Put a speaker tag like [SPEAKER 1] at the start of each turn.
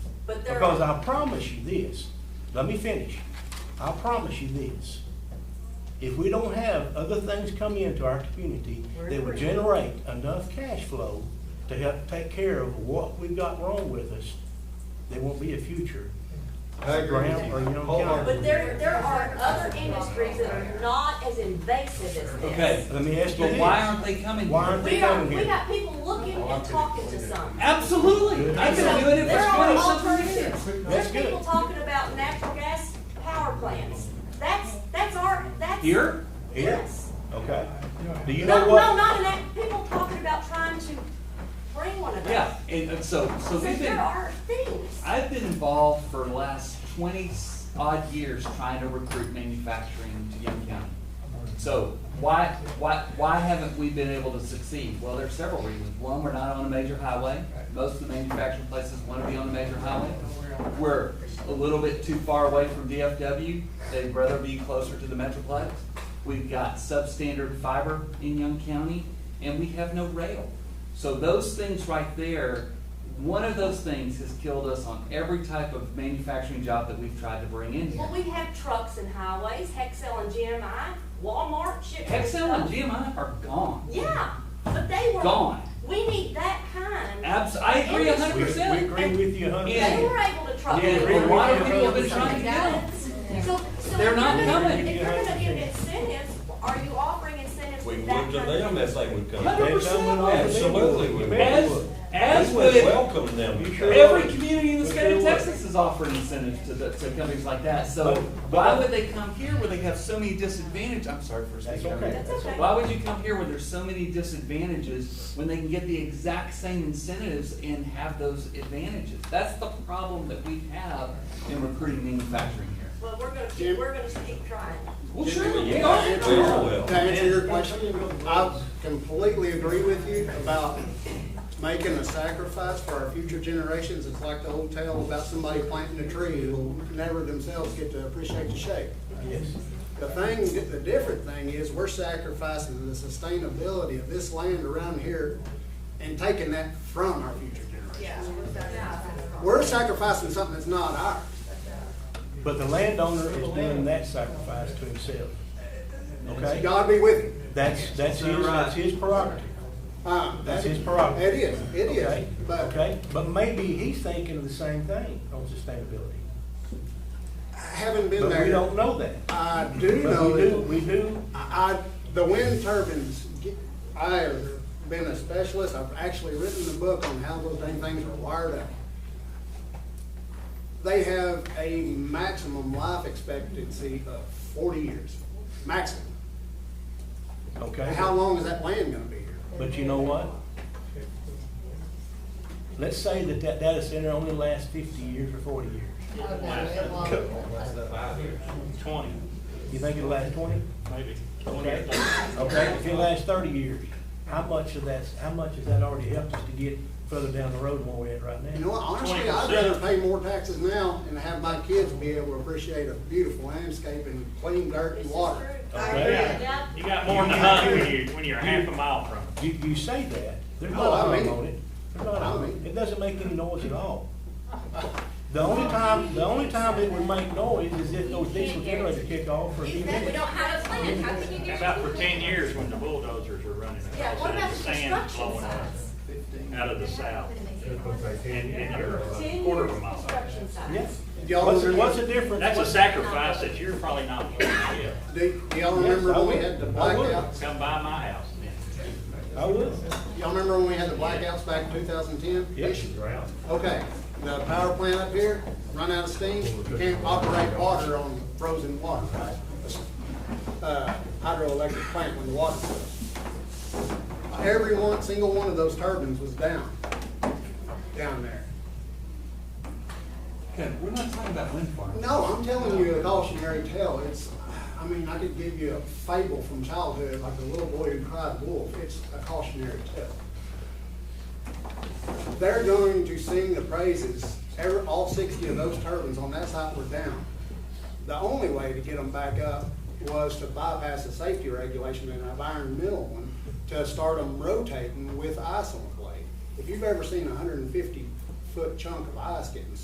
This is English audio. [SPEAKER 1] But there,
[SPEAKER 2] Because
[SPEAKER 1] are-
[SPEAKER 2] I promise you this, let me finish. I promise you this. If we don't have other things come into our community that will generate enough cash flow to help take care of what we've got wrong with us, there won't be a future.
[SPEAKER 3] I agree with
[SPEAKER 2] Graham, or you
[SPEAKER 3] you.
[SPEAKER 2] don't
[SPEAKER 1] but there, there are other industries that are not as invasive as this.
[SPEAKER 4] Okay.
[SPEAKER 2] Let me ask you
[SPEAKER 4] But why
[SPEAKER 2] this.
[SPEAKER 4] aren't they coming
[SPEAKER 2] Why
[SPEAKER 4] here?
[SPEAKER 2] aren't they
[SPEAKER 1] We are,
[SPEAKER 2] coming
[SPEAKER 1] we
[SPEAKER 2] here?
[SPEAKER 1] got people looking and talking to some.
[SPEAKER 4] Absolutely. I've been doing it
[SPEAKER 1] There are
[SPEAKER 4] for twenty something years.
[SPEAKER 1] alternatives. There's
[SPEAKER 2] good.
[SPEAKER 1] people talking about natural gas power plants. That's, that's our, that's.
[SPEAKER 4] Here?
[SPEAKER 2] Here?
[SPEAKER 1] Yes.
[SPEAKER 2] Okay. Do you
[SPEAKER 1] No,
[SPEAKER 2] know
[SPEAKER 1] no,
[SPEAKER 2] what?
[SPEAKER 1] not in that, people talking about trying to bring one of those.
[SPEAKER 4] Yeah, and and so, so
[SPEAKER 1] So
[SPEAKER 4] we've
[SPEAKER 1] there
[SPEAKER 4] been,
[SPEAKER 1] are things.
[SPEAKER 4] I've been involved for the last twenty odd years trying to recruit manufacturing to Young County. So why, why, why haven't we been able to succeed? Well, there's several reasons. One, we're not on a major highway. Most of the manufacturing places want to be on a major highway. We're a little bit too far away from DFW. They'd rather be closer to the metroplex. We've got substandard fiber in Young County, and we have no rail. So those things right there, one of those things has killed us on every type of manufacturing job that we've tried to bring in here.
[SPEAKER 1] Well, we have trucks and highways, Hexel and GMI, Walmart, ship.
[SPEAKER 4] Hexel and GMI are gone.
[SPEAKER 1] Yeah, but they were.
[SPEAKER 4] Gone.
[SPEAKER 1] We need that kind.
[SPEAKER 4] Abs, I agree a
[SPEAKER 2] We,
[SPEAKER 4] hundred
[SPEAKER 2] we
[SPEAKER 4] percent.
[SPEAKER 2] agree with you a hundred
[SPEAKER 4] Yeah.
[SPEAKER 1] They
[SPEAKER 2] percent.
[SPEAKER 1] were able to truck.
[SPEAKER 4] Yeah,
[SPEAKER 1] it.
[SPEAKER 2] but why do people have been
[SPEAKER 4] trying to
[SPEAKER 1] it? So, so.
[SPEAKER 4] They're
[SPEAKER 1] if
[SPEAKER 4] not
[SPEAKER 1] you're gonna-
[SPEAKER 4] coming.
[SPEAKER 1] If you're gonna give incentives, are you offering incentives
[SPEAKER 5] We
[SPEAKER 1] with
[SPEAKER 5] would
[SPEAKER 1] that
[SPEAKER 5] to
[SPEAKER 1] kind of?
[SPEAKER 5] them if they would come.
[SPEAKER 4] Hundred percent.
[SPEAKER 5] Absolutely we
[SPEAKER 2] You
[SPEAKER 5] would.
[SPEAKER 2] better
[SPEAKER 4] As,
[SPEAKER 2] would.
[SPEAKER 4] as
[SPEAKER 5] We would
[SPEAKER 4] with
[SPEAKER 5] welcome them.
[SPEAKER 2] You sure?
[SPEAKER 4] every community in the
[SPEAKER 2] We
[SPEAKER 4] state of
[SPEAKER 2] sure would.
[SPEAKER 4] Texas is offering incentives to the, to companies like that. So
[SPEAKER 2] But-
[SPEAKER 4] why would they come here where they have so many disadvantages? I'm sorry for
[SPEAKER 2] That's
[SPEAKER 4] speaking. over
[SPEAKER 2] okay.
[SPEAKER 4] you.
[SPEAKER 1] That's okay.
[SPEAKER 4] Why would you come here where there's so many disadvantages when they can get the exact same incentives and have those advantages? That's the problem that we have in recruiting manufacturing here.
[SPEAKER 1] Well, we're gonna, keep- we're gonna keep trying.
[SPEAKER 4] Well, sure, we
[SPEAKER 5] Yeah,
[SPEAKER 4] are.
[SPEAKER 5] it will.
[SPEAKER 3] To answer your question, I completely agree with you about making a sacrifice for our future generations. It's like the old tale about somebody planting a tree who'll never themselves get to appreciate the shape.
[SPEAKER 2] Yes.
[SPEAKER 3] The thing, the different thing is, we're sacrificing the sustainability of this land around here and taking that from our future generations. We're sacrificing something that's not ours.
[SPEAKER 2] But the landowner is doing that sacrifice to himself. Okay?
[SPEAKER 3] God be with you.
[SPEAKER 2] That's, that's his, that's his prerogative.
[SPEAKER 3] Um,
[SPEAKER 2] That's his prerogative.
[SPEAKER 3] It is, it
[SPEAKER 2] Okay,
[SPEAKER 3] is, but
[SPEAKER 2] Okay, but maybe he's thinking of the same thing on sustainability.
[SPEAKER 3] having been
[SPEAKER 2] But we
[SPEAKER 3] there,
[SPEAKER 2] don't know that.
[SPEAKER 3] I do
[SPEAKER 2] But
[SPEAKER 3] know
[SPEAKER 2] we do,
[SPEAKER 3] that
[SPEAKER 2] we do,
[SPEAKER 3] I, I- the wind turbines, get- I have been a specialist, I've actually written a book on how those dang things are wired up. They have a maximum life expectancy of forty years, maximum.
[SPEAKER 2] okay?
[SPEAKER 3] How long is that land gonna be here?
[SPEAKER 2] But you know what? Let's say that that data center only lasts fifty years or forty years.
[SPEAKER 6] Twenty,
[SPEAKER 2] You think it'll last twenty?
[SPEAKER 6] maybe.
[SPEAKER 2] Okay, okay, if it lasts thirty years, how much of that's, how much has that already helped us to get further down the road than where we're at right
[SPEAKER 3] You know
[SPEAKER 2] now?
[SPEAKER 3] what, honestly, I'd
[SPEAKER 6] 20%.
[SPEAKER 3] rather pay more taxes now and have my kids be able to appreciate a beautiful landscape and clean dirt
[SPEAKER 1] This
[SPEAKER 3] and
[SPEAKER 1] is
[SPEAKER 3] water.
[SPEAKER 1] true.
[SPEAKER 6] Oh,
[SPEAKER 2] Okay.
[SPEAKER 1] Yeah.
[SPEAKER 6] You got more in the hunt when you, when you're half a mile from it.
[SPEAKER 2] You, you say that, there's
[SPEAKER 3] Oh,
[SPEAKER 2] not
[SPEAKER 3] I
[SPEAKER 2] a
[SPEAKER 3] mean
[SPEAKER 2] hum on
[SPEAKER 3] it.
[SPEAKER 2] it, there's not a
[SPEAKER 3] I
[SPEAKER 2] hum,
[SPEAKER 3] mean it.
[SPEAKER 2] it doesn't make any noise at all. The only time, the only time it would make noise is if those diesel generators kick off for a few
[SPEAKER 1] Exactly, we
[SPEAKER 2] minutes.
[SPEAKER 1] don't have a plan, how can you
[SPEAKER 6] How
[SPEAKER 1] guarantee?
[SPEAKER 6] About for ten years when the bulldozers were running
[SPEAKER 1] Yeah,
[SPEAKER 6] across
[SPEAKER 1] what
[SPEAKER 6] it,
[SPEAKER 1] about
[SPEAKER 6] and
[SPEAKER 1] the
[SPEAKER 6] the sand
[SPEAKER 1] construction
[SPEAKER 6] blowing up
[SPEAKER 1] sites?
[SPEAKER 6] out of the south. And, and you're a
[SPEAKER 1] Ten
[SPEAKER 6] quarter of
[SPEAKER 1] years
[SPEAKER 6] a mile.
[SPEAKER 1] construction sites.
[SPEAKER 2] Yes,
[SPEAKER 3] Y'all
[SPEAKER 2] what's,
[SPEAKER 3] agree?
[SPEAKER 2] what's the difference?
[SPEAKER 6] That's a sacrifice that you're probably not willing to give.
[SPEAKER 3] Do, do y'all
[SPEAKER 2] Yes,
[SPEAKER 3] remember
[SPEAKER 2] I
[SPEAKER 3] when we
[SPEAKER 2] would.
[SPEAKER 3] had the
[SPEAKER 2] I would.
[SPEAKER 3] blackouts?
[SPEAKER 6] Come by my house then.
[SPEAKER 2] I would,
[SPEAKER 3] Y'all remember when we had the blackouts back in two thousand ten?
[SPEAKER 2] yes,
[SPEAKER 3] Okay, the power plant up here, run out of steam, you can't operate water on frozen water, right? Uh, hydroelectric plant when the water goes. Every one, single one of those turbines was down, down there.
[SPEAKER 4] Okay, we're not talking about wind farms.
[SPEAKER 3] No, I'm telling you a cautionary tale. It's, I mean, I could give you a fable from childhood, like the little boy who cried wolf. It's a cautionary tale. They're going to sing the praises. Every, all sixty of those turbines on that site were down. The only way to get them back up was to bypass the safety regulation and have iron middle one to start them rotating with ice on the blade. If you've ever seen a hundred and fifty foot chunk of ice getting